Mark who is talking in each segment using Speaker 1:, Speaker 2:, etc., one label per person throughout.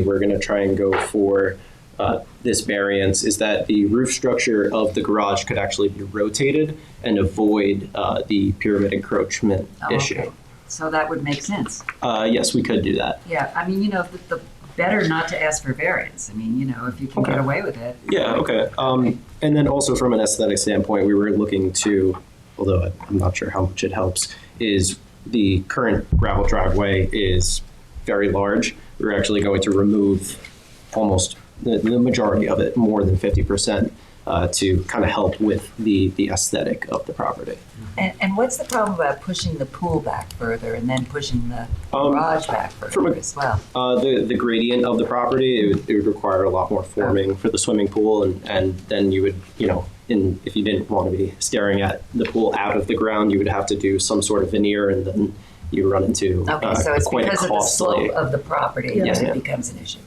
Speaker 1: we're going to try and go for uh, this variance is that the roof structure of the garage could actually be rotated and avoid uh, the pyramid encroachment
Speaker 2: Oh,
Speaker 1: issue.
Speaker 2: okay. So that would make sense.
Speaker 1: Uh, yes, we could do that.
Speaker 2: Yeah, I mean, you know, the, the better not to ask for variance. I mean, you know, if you can get
Speaker 1: Okay.
Speaker 2: away with it.
Speaker 1: Yeah, okay. Um, and then also from an aesthetic standpoint, we were looking to, although I'm not sure how much it helps, is the current gravel driveway is very large. We're actually going to remove almost the, the majority of it, more than 50%, uh, to kind of help with the, the aesthetic of the property.
Speaker 2: And, and what's the problem about pushing the pool back further and then pushing the
Speaker 1: Um,
Speaker 2: garage back
Speaker 1: from
Speaker 2: further
Speaker 1: a-
Speaker 2: as well?
Speaker 1: Uh, the, the gradient of the property, it would, it would require a lot more forming for the swimming pool, and, and then you would, you know, in, if you didn't want to be staring at the pool out of the ground, you would have to do some sort of veneer, and then you run into uh,
Speaker 2: Okay, so it's
Speaker 1: quite a
Speaker 2: because of the
Speaker 1: costly.
Speaker 2: slope of the property
Speaker 1: Yes,
Speaker 2: that it
Speaker 1: ma'am.
Speaker 2: becomes an issue.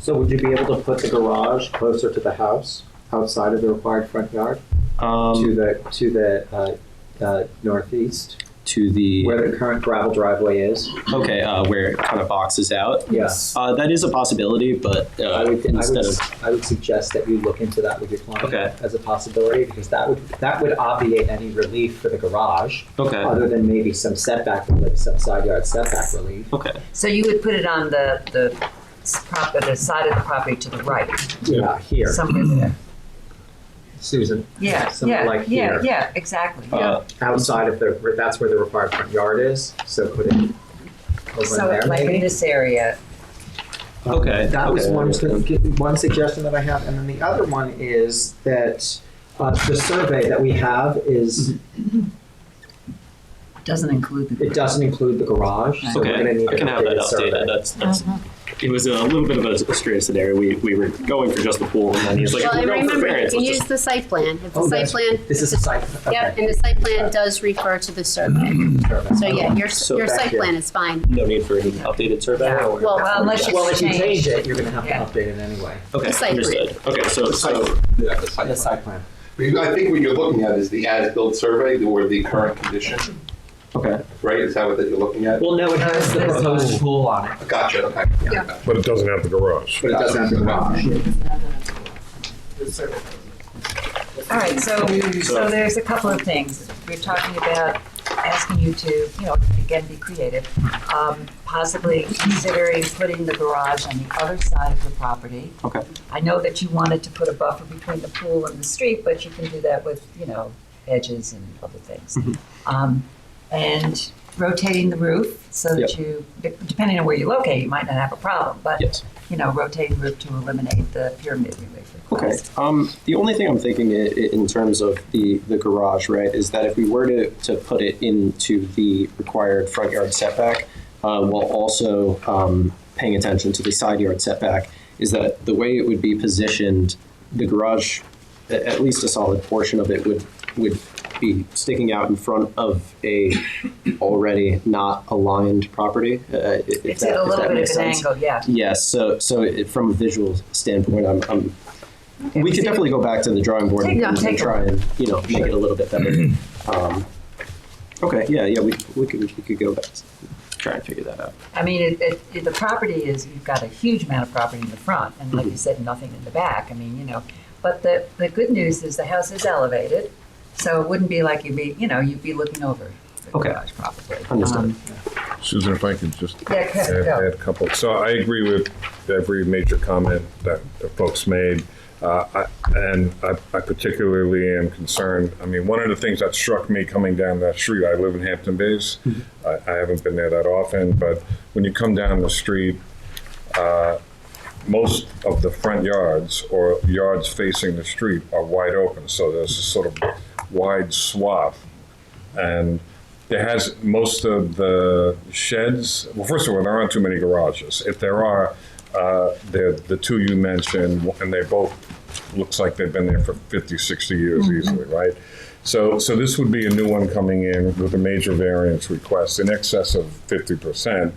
Speaker 3: So would you be able to put the garage closer to the house, outside of the required front yard, to
Speaker 1: um,
Speaker 3: the, to the uh, uh, northeast,
Speaker 1: to the
Speaker 3: where the current gravel driveway is?
Speaker 1: okay, uh, where it kind of boxes out.
Speaker 3: Yes.
Speaker 1: Uh, that is a possibility, but
Speaker 3: I
Speaker 1: uh,
Speaker 3: would, I
Speaker 1: instead
Speaker 3: would,
Speaker 1: of
Speaker 3: I would suggest that you look into that with your client
Speaker 1: Okay.
Speaker 3: as a possibility, because that would, that would obviate any relief for the garage,
Speaker 1: okay, uh,
Speaker 3: other than maybe some setback relief, some side yard setback relief.
Speaker 1: okay,
Speaker 2: So you would put it on the, the, s- prop- the side of the property to the right,
Speaker 3: Yeah, uh, here,
Speaker 2: somewhere there.
Speaker 3: Susan.
Speaker 2: Yeah,
Speaker 3: Something
Speaker 2: yeah,
Speaker 3: like
Speaker 2: yeah,
Speaker 3: here,
Speaker 2: yeah, exactly, yeah.
Speaker 1: uh,
Speaker 3: outside of the, that's where the required front yard is, so put it over
Speaker 2: So
Speaker 3: there
Speaker 2: like in
Speaker 3: maybe.
Speaker 2: this area,
Speaker 3: Um,
Speaker 1: Okay,
Speaker 3: That was
Speaker 1: okay, I
Speaker 3: one,
Speaker 1: understand.
Speaker 3: sug- one suggestion that I have, and then the other one is that uh, the survey that we have is,
Speaker 1: Mm-hmm.
Speaker 2: doesn't include the.
Speaker 3: it doesn't include the garage, so we're gonna
Speaker 1: okay.
Speaker 3: need
Speaker 1: I
Speaker 3: an
Speaker 1: can have that
Speaker 3: updated
Speaker 1: updated.
Speaker 3: survey.
Speaker 1: That's that's.
Speaker 4: Uh-huh.
Speaker 1: It was a little bit of a strange scenario. We, we were going for just the pool, and then he's like,
Speaker 4: Well,
Speaker 1: "If
Speaker 4: and
Speaker 1: we're going for
Speaker 4: remember,
Speaker 1: variance,
Speaker 4: you
Speaker 1: let's
Speaker 4: use
Speaker 1: just
Speaker 4: the site plan. If
Speaker 3: Oh,
Speaker 4: the site
Speaker 3: that's-
Speaker 4: plan.
Speaker 3: This is a site,
Speaker 4: Yep,
Speaker 3: okay.
Speaker 4: and the site plan does refer to the survey.
Speaker 3: survey.
Speaker 4: So yeah, your,
Speaker 1: So
Speaker 4: your
Speaker 3: back
Speaker 4: site
Speaker 3: here.
Speaker 4: plan is fine.
Speaker 1: no need for any updated survey
Speaker 2: Yeah.
Speaker 1: or?
Speaker 4: Well,
Speaker 2: Well, unless
Speaker 3: Well,
Speaker 2: it's
Speaker 3: if you change
Speaker 2: changed.
Speaker 3: it, you're gonna have
Speaker 2: Yeah.
Speaker 3: to update it anyway,
Speaker 1: Okay,
Speaker 4: It's like-
Speaker 1: understood. Okay, so, so,
Speaker 5: Yeah,
Speaker 3: the
Speaker 5: the site plan.
Speaker 3: site plan.
Speaker 5: Because I think what you're looking at is the as-built survey or the current condition,
Speaker 1: okay.
Speaker 5: right? Is that what that you're looking at?
Speaker 3: Well, no, it has the proposed pool on it,
Speaker 5: Gotcha, okay. Yeah.
Speaker 6: But it doesn't have the garage.
Speaker 3: but it doesn't have the garage.
Speaker 2: All right, so, so there's a couple of things. We're talking about asking you to, you know, again, be creative, um, possibly considering putting the garage on the other side of the property.
Speaker 1: Okay.
Speaker 2: I know that you wanted to put a buffer between the pool and the street, but you can do that with, you know, edges and other things.
Speaker 1: Mm-hmm.
Speaker 2: Um, And rotating the roof so that you, depending on where you locate, you might not have a problem, but,
Speaker 1: Yes.
Speaker 2: you know, rotating the roof to eliminate the pyramid relief
Speaker 1: Okay.
Speaker 2: request.
Speaker 1: Um, the only thing I'm thinking i- i- in terms of the, the garage, right, is that if we were to, to put it into the required front yard setback, uh, while also um, paying attention to the side yard setback, is that the way it would be positioned, the garage, a- at least a solid portion of it would would be sticking out in front of a already not aligned property. Uh, i- if
Speaker 2: It's
Speaker 1: that-
Speaker 2: at a
Speaker 1: if
Speaker 2: little
Speaker 1: that
Speaker 2: bit
Speaker 1: makes
Speaker 2: of an
Speaker 1: sense.
Speaker 2: angle, yeah.
Speaker 1: Yes, so so it, from a visual standpoint, I'm, I'm we could definitely go back to the drawing board
Speaker 2: Take-
Speaker 1: and, and
Speaker 2: take a
Speaker 1: try and you know make it a little bit better. um, okay, yeah, yeah, we, we could we could go back try and figure that out.
Speaker 2: I mean, it, it, it- the property is, you've got a huge amount of property in the front, and
Speaker 1: Mm-hmm.
Speaker 2: like you said, nothing in the back, I mean, you know. But the, the good news is the house is elevated, so it wouldn't be like you'd be, you know, you'd be looking over the
Speaker 1: Okay.
Speaker 2: garage probably.
Speaker 1: Understood.
Speaker 2: Um,
Speaker 6: Susan, if I could just
Speaker 2: Yeah,
Speaker 6: add,
Speaker 2: Kevin, go.
Speaker 6: add a couple. So I agree with every major comment that the folks made. Uh, I, and I, I particularly am concerned. I mean, one of the things that struck me coming down that street, I live in Hampton Bays. I, I haven't been there that often, but when you come down the street, uh, most of the front yards or yards facing the street are wide open, so there's a sort of wide swath. And there has, most of the sheds, well, first of all, there aren't too many garages. If there are, uh, they're the two you mentioned, and they both, looks like they've been there for 50, 60 years easily, right? So, so this would be a new one coming in with a major variance request in excess of 50%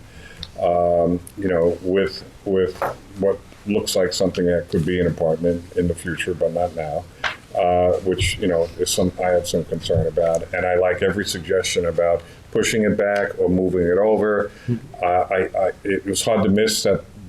Speaker 6: you know, with, with what looks like something that could be an apartment in the future, but not now, uh, which, you know, is some, I have some concern about. And I like every suggestion about pushing it back or moving it over. Uh, I, I, it was hard to miss that